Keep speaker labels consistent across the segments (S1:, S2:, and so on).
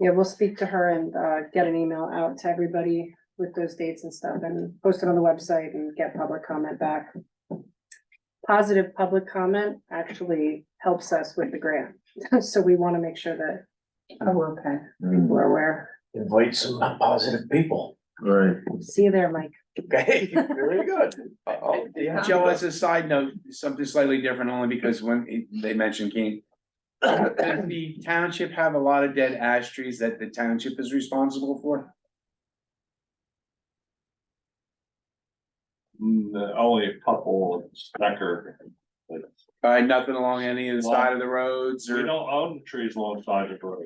S1: Yeah, we'll speak to her and uh get an email out to everybody with those dates and stuff and post it on the website and get public comment back. Positive public comment actually helps us with the grant, so we want to make sure that
S2: Oh, okay.
S3: Mm-hmm.
S1: we're aware.
S4: Invite some positive people.
S3: Right.
S1: See you there, Mike.
S4: Okay, very good. Oh, yeah.
S5: Joe, as a side note, something slightly different only because when it- they mentioned Keene. Does the township have a lot of dead ash trees that the township is responsible for?
S3: Mm, Only a couple of stacker. We
S5: Uh, nothing along any of the side of the roads
S3: don't
S5: or
S3: own trees alongside the road,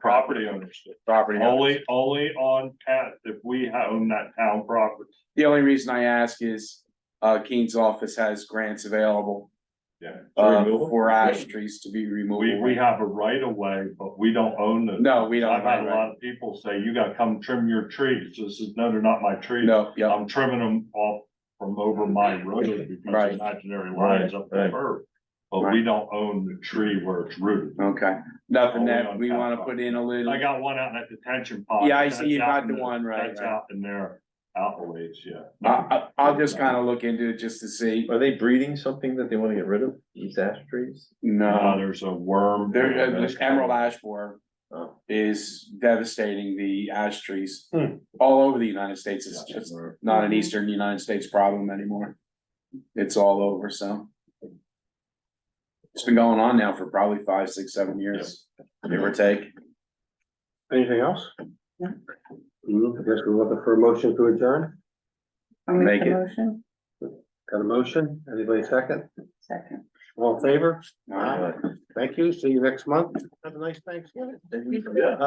S3: property owners, do.
S5: property?
S3: only, only on pat, if we own that town property.
S5: The only reason I ask is, uh, Keene's office has grants available,
S3: Yeah.
S5: uh,
S3: Remove 'em.
S5: for ash trees to be removed.
S3: We, we have a right of way, but we don't own the.
S5: No, we don't.
S3: I've had a
S5: right?
S3: lot of people say, you gotta come trim your trees, this is, no, they're not my trees.
S5: No, yeah,
S3: I'm trimming them off from over my road
S5: Right.
S3: because imaginary lines up the curb. But we don't own the tree where it's rooted.
S5: okay. Nothing
S3: Um, Only
S5: that
S3: on
S5: we
S3: town
S5: wanna
S3: property.
S5: put in a little.
S3: I got one out in that detention pond.
S5: Yeah, I see you
S3: That's out
S5: got
S3: in
S5: the one, right,
S3: That's
S5: right. Ah.
S3: out in there, out a ways, yeah.
S5: I, I, I'll just kind of look into it just to see.
S6: Are they breeding something that they wanna get rid of, these ash trees?
S3: Uh,
S5: No,
S3: there's a worm.
S5: there, uh, this emerald ash borer
S6: Oh.
S5: is devastating the ash trees
S3: Hmm.
S5: all over the United States. It's
S3: Yeah.
S5: just not an eastern United States problem anymore. It's all over, so. It's been going on now for probably five, six, seven years, give or take.
S7: Anything else? Hmm, I guess we're looking for a motion to adjourn.
S2: I'll make
S5: Make
S2: the
S5: it.
S2: motion,
S7: Got a motion? Anybody second?
S2: second.
S7: All in favor?
S5: All right.
S7: Thank you. See you next month. Have a nice Thanksgiving.
S6: Yeah.